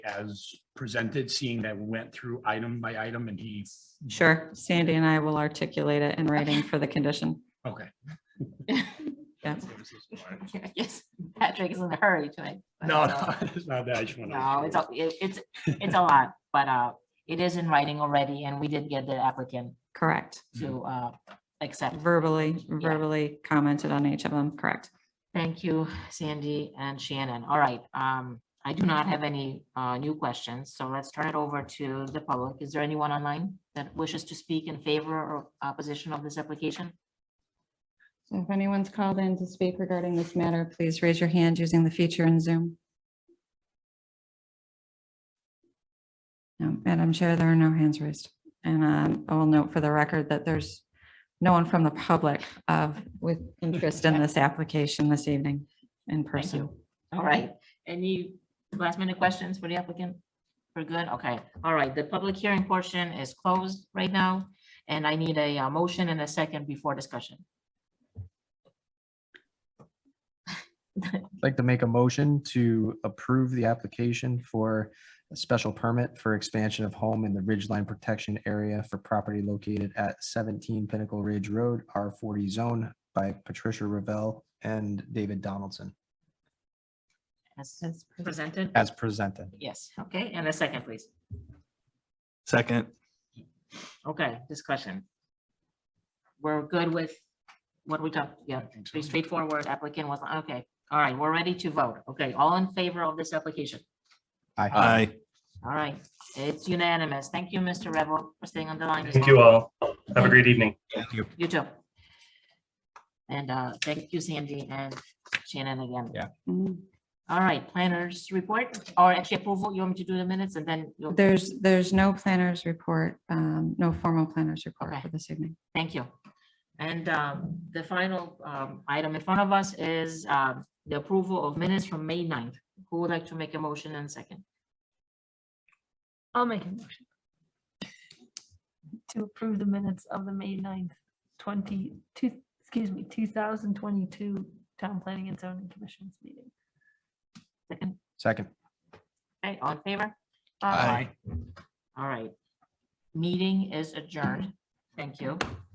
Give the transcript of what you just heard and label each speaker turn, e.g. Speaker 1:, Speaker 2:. Speaker 1: as presented, seeing that we went through item by item and he,
Speaker 2: Sure, Sandy and I will articulate it in writing for the condition.
Speaker 1: okay.
Speaker 2: Yeah.
Speaker 3: Yes, Patrick is in a hurry tonight. but,
Speaker 1: No,
Speaker 3: uh,
Speaker 1: no, it's not that. I just wanna-
Speaker 3: No, it's, a- it- it's, it's a lot, but uh, it is in writing already, and we did get the applicant
Speaker 2: Correct.
Speaker 3: to uh, accept.
Speaker 2: Verbally, verbally commented on each of them, correct.
Speaker 3: Thank you, Sandy and Shannon. All right, um, I do not have any uh, new questions, so let's turn it over to the public. Is there anyone online that wishes to speak in favor or opposition of this application?
Speaker 2: So if anyone's called in to speak regarding this matter, please raise your hand using the feature in Zoom. No, Madam Chair, there are no hands raised. And um, I will note for the record that there's no one from the public of, with interest in this application this evening in
Speaker 3: Thank
Speaker 2: person.
Speaker 3: you. All right, any last minute questions for the applicant? We're good, okay, all right, the public hearing portion is closed right now, and I need a uh, motion and a second before discussion.
Speaker 4: I'd like to make a motion to approve the application for a special permit for expansion of home in the Ridgeline Protection Area for property located at seventeen Pinnacle Ridge Road, R forty zone by Patricia Ravel and David Donaldson
Speaker 3: As
Speaker 2: As pres-
Speaker 3: presented,
Speaker 4: as presented.
Speaker 3: yes, okay, and a second, please.
Speaker 5: Second,
Speaker 3: Okay, discussion. We're good with what we talked, yeah,
Speaker 1: I think so.
Speaker 3: pretty straightforward, applicant was, okay, all right, we're ready to vote, okay, all in favor of this application?
Speaker 4: Aye.
Speaker 5: aye.
Speaker 3: All right, it's unanimous, thank you, Mr. Revel, for staying on the line. this
Speaker 6: Thank you
Speaker 3: long.
Speaker 6: all. Have a great evening.
Speaker 3: You too. And uh, thank you, Sandy and Shannon again.
Speaker 4: Yeah.
Speaker 2: Mhm.
Speaker 3: All right, planners report or actually approval, you want me to do the minutes and then you'll,
Speaker 2: There's, there's no planners report, um, no formal planners report
Speaker 3: Okay.
Speaker 2: for this evening.
Speaker 3: thank you. And um, the final um, item in front of us is um, the approval of minutes from May 9th. Who would like to make a motion and second?
Speaker 7: I'll make a motion. To approve the minutes of the May 9th, twenty, two, excuse me, two thousand twenty-two Town Planning and Zoning Commission's meeting.
Speaker 3: Second,
Speaker 4: Second.
Speaker 3: okay, all in favor?
Speaker 7: Uh,
Speaker 5: Aye.
Speaker 3: All right. Meeting is adjourned. Thank you.